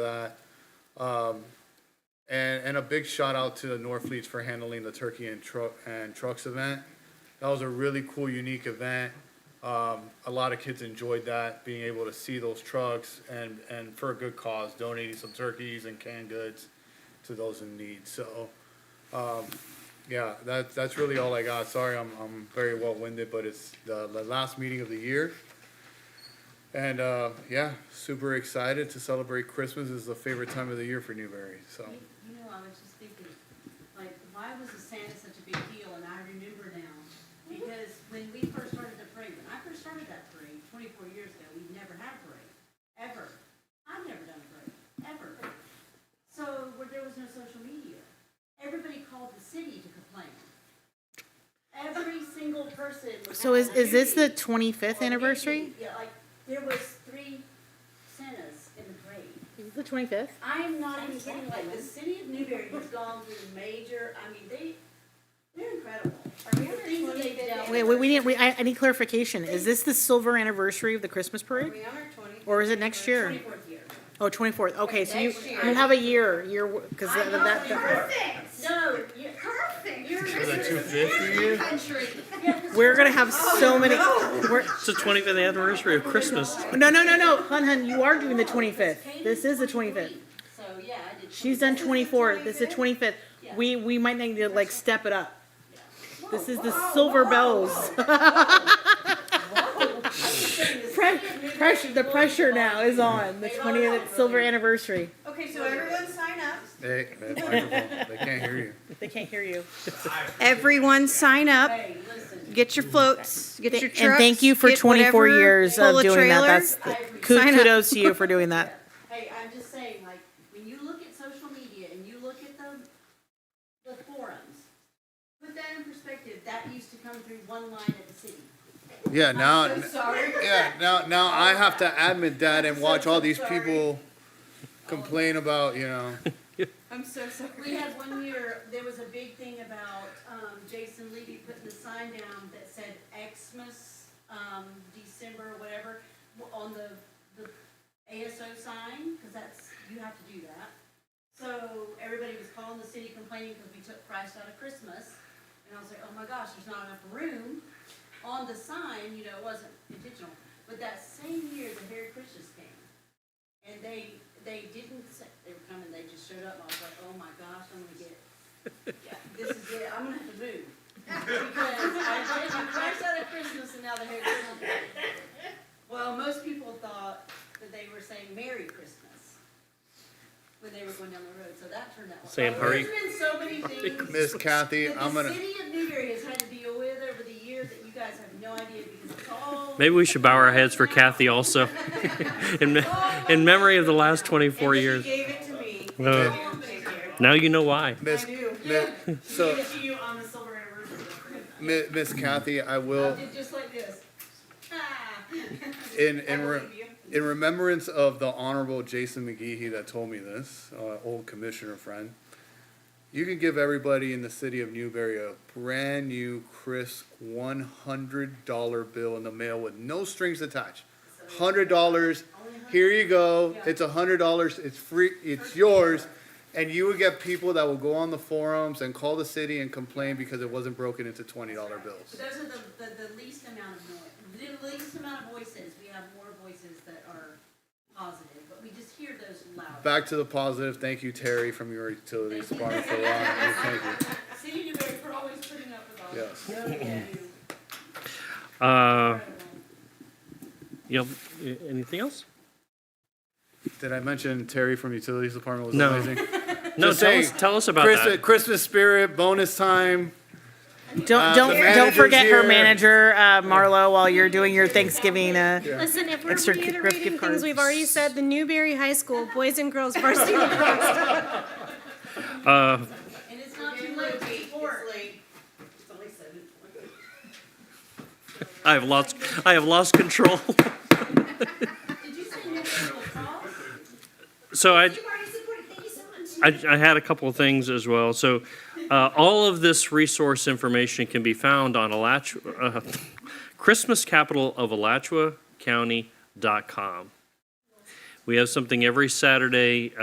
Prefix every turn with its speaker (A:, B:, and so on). A: that. Um, and, and a big shout out to the North Fleets for handling the Turkey and Truck and Trucks event. That was a really cool, unique event. Um, a lot of kids enjoyed that, being able to see those trucks and, and for a good cause, donating some turkeys and canned goods to those in need. So, um, yeah, that, that's really all I got. Sorry, I'm, I'm very well winded, but it's the, the last meeting of the year. And uh, yeah, super excited to celebrate Christmas. This is the favorite time of the year for Newberry. So
B: You you know, I was just thinking, like, why was the Santa such a big deal? And I remember now, because when we first started the parade, when I first started that parade twenty-four years ago, we never had a parade, ever. I've never done a parade, ever. So where there was no social media, everybody called the city to complain. Every single person. would
C: So
B: have a
C: is, is this the
B: meeting. Or
C: 25th anniversary?
B: meeting. Yeah, like, there was three Santas in the parade.
C: The 25th?
B: I'm not even kidding, like, the city of Newberry has gone through major, I mean, they, they're incredible. The things that they've done.
C: Wait, wait, we didn't, we, I, I need clarification. Is this the silver anniversary of the Christmas parade?
D: We are twenty.
C: Or is it next year?
B: Twenty-fourth year.
C: Oh, 24th, okay, so you,
D: Next year.
C: you have a year, year, because that, that- that-
E: Perfect.
B: No, yeah,
E: Perfect. You're
A: is that 250?
E: country.
C: we're gonna have so many, we're,
F: It's the 25th anniversary of Christmas.
C: no, no, no, no, hun, hun, you are doing the 25th. This is the 25th.
B: 23. So, yeah, I did.
C: She's done 24, this is the 25th. We, we might need to like step it up. This is the silver bells. Pre- Pressure, the pressure now is on, the 20th silver anniversary.
D: Okay, so everyone sign up.
A: Hey, that microphone, they can't hear you.
C: They can't hear you.
D: Everyone sign up.
B: Hey, listen,
D: Get your floats, get your
C: And
D: trucks.
C: thank you for
D: get
C: 24
D: whatever,
C: years of
D: pull a
C: doing that.
D: trailer.
C: That's
D: Sign up.
C: kudos to you for doing that.
B: hey, I'm just saying, like, when you look at social media and you look at the, the forums, put that in perspective, that used to come through one line at the city.
A: Yeah, now,
B: I'm so sorry.
A: yeah, now, now I have to admit that and watch all these people complain about, you know.
D: I'm so sorry.
B: We had one year, there was a big thing about, um, Jason Levy putting the sign down that said Xmas, um, December, whatever, w- on the, the ASO sign, cause that's, you have to do that. So everybody was calling the city complaining because we took Christ out of Christmas, and I was like, oh my gosh, there's not enough room on the sign, you know, it wasn't intentional. But that same year, the Harry Christians came, and they, they didn't say, they were coming, they just showed up, and I was like, oh my gosh, I'm gonna get, yeah, this is it, I'm gonna have to move. Because I did, I crashed out of Christmas and now the Harry Christmas. Well, most people thought that they were saying Merry Christmas when they were going down the road, so that turned out.
F: Saying Hurry-
B: There's been so many things
A: Miss Kathy,
B: that
A: I'm
B: the
A: gonna,
B: city of Newberry has had to deal with over the years that you guys have no idea because it's all.
F: Maybe we should bow our heads for Kathy also, in, me- in memory of the last 24
D: And
F: years.
D: she gave it to me.
F: Uh, now you know why.
A: Miss,
D: I do.
A: Mi- so,
D: Give it to you on the silver anniversary.
A: Mi- Miss Kathy, I
B: I
A: will,
B: did just like this. Ah.
A: in, in, re-
D: Believe you.
A: in remembrance of the Honorable Jason McGeehee that told me this, uh, old commissioner friend, you can give everybody in the city of Newberry a brand new, crisp $100 bill in the mail with no strings attached. $100, here you go. It's $100, it's free, it's yours. And you would get people that will go on the forums and call the city and complain because it wasn't broken into $20 bills.
B: But those are the, the, the least amount of noise, the least amount of voices. We have more voices that are positive, but we just hear those loud.
A: Back to the positive. Thank you, Terry, from your utilities department for allowing me. Thank you.
B: City of Newberry, we're always putting up with all that.
A: Yes.
F: Uh, you know, anything else?
A: Did I mention Terry from utilities department was
F: No.
A: amazing?
F: No,
A: Just
F: tell
A: saying,
F: us, tell us about
A: Christmas,
F: that.
A: Christmas spirit, bonus time.
C: Don't, don't, don't
A: Uh, manager's
C: forget her
A: here.
C: manager, uh, Marlo, while you're doing your Thanksgiving, uh,
G: Listen, if we're
C: Extra gift- gift
G: reiterating
C: cards.
G: things we've already said, the Newberry High School Boys and Girls Varsity Lacrosse
F: Uh,
B: And it's not too late to support. It's only seven twenty.
F: I have lost, I have lost control.
B: Did you say Newberry will cross?
F: So I,
E: You've already supported. Thank you so much.
F: I, I had a couple of things as well. So, uh, all of this resource information can be found on Alachua, uh, Christmas Capital of Alachua County.com. We have something every Saturday